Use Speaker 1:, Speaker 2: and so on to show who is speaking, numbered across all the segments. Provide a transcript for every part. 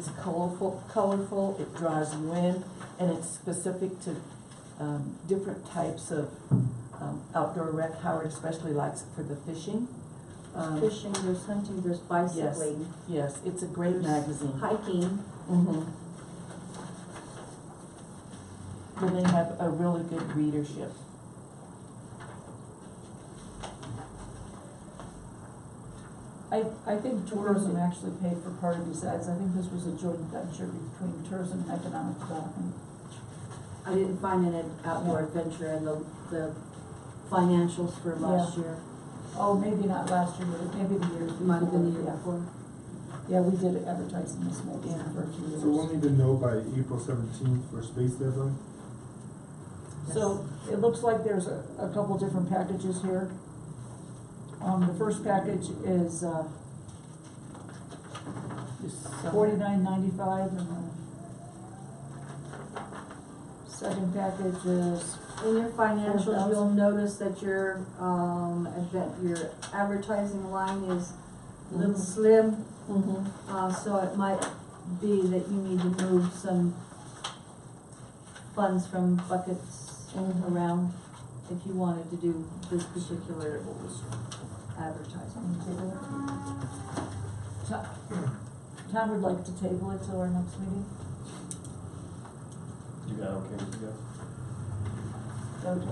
Speaker 1: It's colorful, colorful, it draws you in, and it's specific to, um, different types of, um, outdoor rec. Howard especially likes it for the fishing. Um,
Speaker 2: Fishing, there's hunting, there's bicycling,
Speaker 1: Yes, it's a great magazine.
Speaker 2: hiking.
Speaker 1: Mhm. And they have a really good readership.
Speaker 3: I, I think tourism actually paid for part of these ads, I think this was a joint venture between tourism and economic development.
Speaker 2: I didn't find an ad- outdoor adventure in the, the financials for last year.
Speaker 3: Oh, maybe not last year, but maybe the year.
Speaker 2: It might have been the year
Speaker 3: yeah.
Speaker 2: before.
Speaker 3: Yeah, we did advertise in this magazine
Speaker 1: Yeah.
Speaker 3: for a few years.
Speaker 4: So we'll need to know by April seventeenth for space deadline?
Speaker 3: So it looks like there's a, a couple different packages here. Um, the first package is, uh,
Speaker 1: Just so-
Speaker 3: forty-nine ninety-five and the second package is,
Speaker 2: In your financials,
Speaker 3: 4,000.
Speaker 2: you'll notice that your, um, advent, your advertising line is a little
Speaker 1: Mhm.
Speaker 2: slim,
Speaker 1: Mhm.
Speaker 2: uh, so it might be that you need to move some funds from buckets
Speaker 1: Mhm.
Speaker 2: around if you wanted to do this particular advertising.
Speaker 3: um, table. Tom, Tom would like to table it till our next meeting.
Speaker 5: You got okay with you?
Speaker 3: Okay.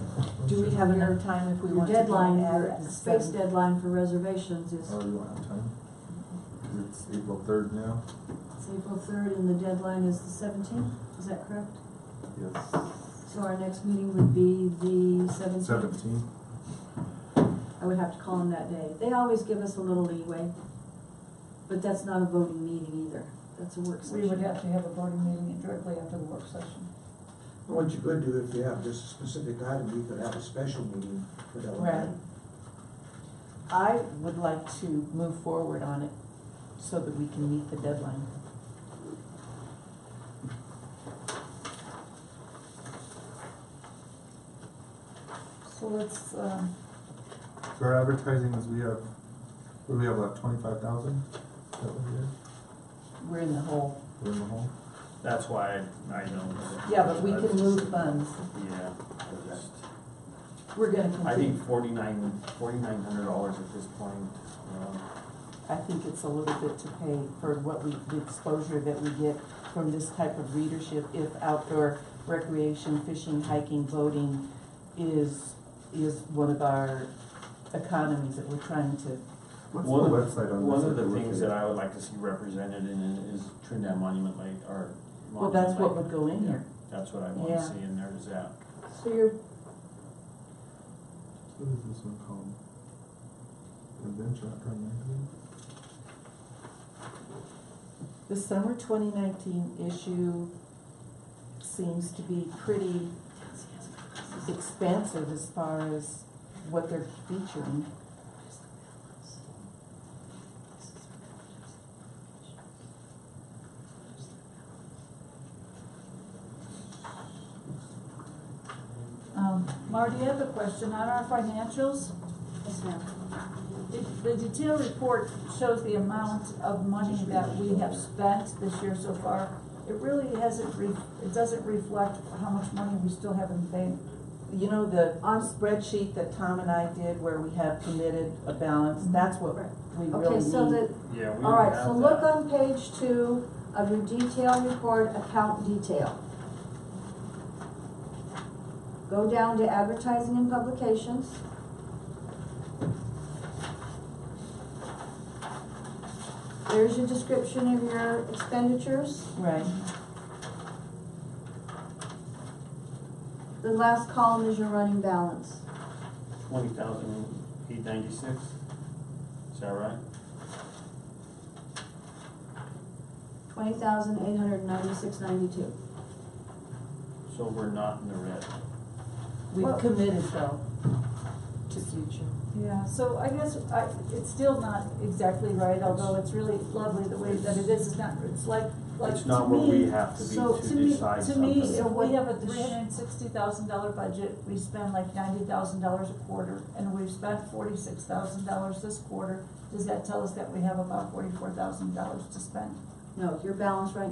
Speaker 1: Do we have enough time if we
Speaker 2: Your
Speaker 1: want to? do an
Speaker 2: deadline,
Speaker 1: ad
Speaker 2: your
Speaker 1: at the Oh.
Speaker 2: space
Speaker 1: seven-
Speaker 2: deadline for reservations is
Speaker 4: Oh, you want to have time? Cause it's April third now?
Speaker 2: it's April third and the deadline is the seventeenth, is that correct?
Speaker 4: Yes.
Speaker 2: So our next meeting would be the seventeenth.
Speaker 4: Seventeenth?
Speaker 2: I would have to call them that day. They always give us a little leeway, but that's not a voting meeting either. That's a work session.
Speaker 3: We would have to have a voting meeting directly after the work session.
Speaker 6: What you could do, if you have just a specific item, you could have a special meeting for that one.
Speaker 1: Right. I would like to move forward on it so that we can meet the deadline.
Speaker 3: So let's, um,
Speaker 4: So our advertising is we have, what do we have left, twenty-five thousand? That one here,
Speaker 1: We're in the hole.
Speaker 4: we're in the hole?
Speaker 5: That's why I, I know.
Speaker 1: Yeah, but we can move funds.
Speaker 5: Yeah. I just-
Speaker 1: We're gonna
Speaker 5: I
Speaker 1: continue.
Speaker 5: think forty-nine, forty-nine hundred dollars at this point, um,
Speaker 1: I think it's a little bit to pay for what we, the exposure that we get from this type of readership if outdoor recreation, fishing, hiking, boating is, is one of our economies that we're trying to,
Speaker 4: What's
Speaker 5: One of-
Speaker 4: the website on this?
Speaker 5: One of
Speaker 4: that
Speaker 5: the
Speaker 4: we're
Speaker 5: things
Speaker 4: looking
Speaker 5: that
Speaker 4: at?
Speaker 5: I would like to see represented in it is Trinidad Monument Lake, or.
Speaker 1: well, that's
Speaker 5: Monument
Speaker 1: what would
Speaker 5: Lake.
Speaker 1: go in here.
Speaker 5: That's what I want
Speaker 1: Yeah.
Speaker 5: to see in there is that.
Speaker 2: So your
Speaker 4: What is this one called? Adventure Outdoor Magazine?
Speaker 1: The summer twenty nineteen issue seems to be pretty expansive as far as what they're featuring.
Speaker 3: um, Marty, I have a question on our financials.
Speaker 2: Yes, ma'am.
Speaker 3: It- The detailed report shows the amount of money that we have spent this year so far. It really hasn't, re- it doesn't reflect how much money we still have in the bank.
Speaker 1: You know, the on spreadsheet that Tom and I did where we had committed a balance, that's what
Speaker 2: Right.
Speaker 1: we really
Speaker 2: Okay, so
Speaker 1: need.
Speaker 2: the,
Speaker 5: Yeah, we
Speaker 2: all
Speaker 5: already
Speaker 2: right,
Speaker 5: have
Speaker 2: so look
Speaker 5: that.
Speaker 2: on page two of your detail report, account detail. Go down to advertising and publications. There's your description of your expenditures.
Speaker 1: Right,
Speaker 2: The last column is your running balance.
Speaker 5: Twenty thousand eight ninety-six, is that right?
Speaker 2: Twenty thousand eight hundred ninety-six ninety-two.
Speaker 5: So we're not in the red.
Speaker 1: we've
Speaker 3: Well-
Speaker 1: committed though to future.
Speaker 3: Yeah, so I guess I, it's still not exactly right, although it's really lovely the way that it is, it's not, it's like, like to me.
Speaker 5: It's not where we have to be
Speaker 3: So
Speaker 5: to
Speaker 3: to me,
Speaker 5: decide
Speaker 3: to
Speaker 5: something.
Speaker 3: me, if we have a
Speaker 2: The sh-
Speaker 3: three hundred and sixty thousand dollar budget, we spend like ninety thousand dollars a quarter, and we've spent forty-six thousand dollars this quarter, does that tell us that we have about forty-four thousand dollars to spend?
Speaker 2: No, your balance right